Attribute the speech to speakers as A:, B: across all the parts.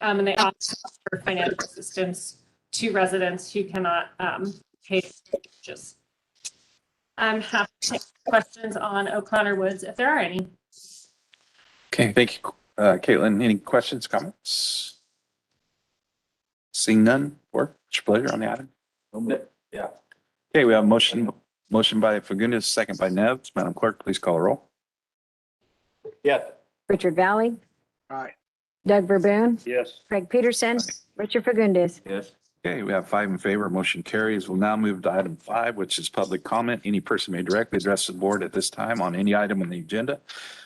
A: Um, and they also offer financial assistance to residents who cannot, um, pay their mortgages. I'm happy to take questions on O'Connor Woods if there are any.
B: Okay, thank you, uh, Caitlin. Any questions, comments? Seeing none, or it's your pleasure on the item? Yeah. Okay, we have a motion, motion by Fagundes, second by Nevs. Madam Clerk, please call a roll.
C: Yes.
D: Richard Valley,
C: Aye.
D: Doug Verboon,
C: Yes.
D: Craig Peterson, Richard Fagundes.
C: Yes.
B: Okay, we have five in favor, motion carries. We'll now move to item five, which is public comment. Any person may directly address the board at this time on any item on the agenda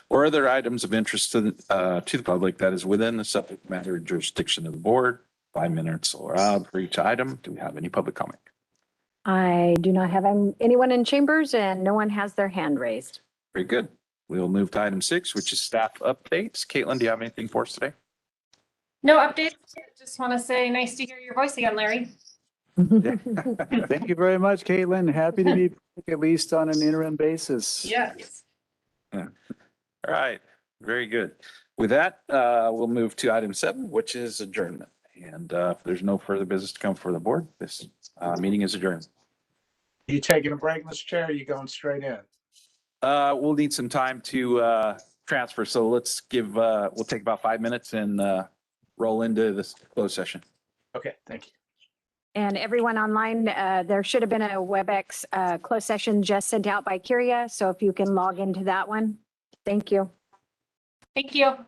B: or other items of interest to, the- uh, to the public that is within the subject matter jurisdiction of the board. Five minutes allowed for each item. Do we have any public comment?
D: I do not have um, anyone in chambers and no one has their hand raised.
B: Very good. We'll move to item six, which is staff updates. Caitlin, do you have anything for us today?
A: No updates. Just want to say nice to hear your voice again, Larry.
C: Thank you very much, Caitlin. Happy to be back, at least on an interim basis.
A: Yes.
B: All right, very good. With that, uh, we'll move to item seven, which is adjournment. And, uh, if there's no further business to come for the board, this, uh, meeting is adjourned.
E: You taking a break, Mr. Chair? or You going straight in?
B: Uh, we'll need some time to, uh, transfer, so let's give, uh, we'll take about five minutes and, uh, roll into this closed session.
E: Okay, thank you.
D: And everyone online, uh, there should have been a WebEx uh, closed session just sent out by Curia. So if you can log into that one, thank you.
A: Thank you.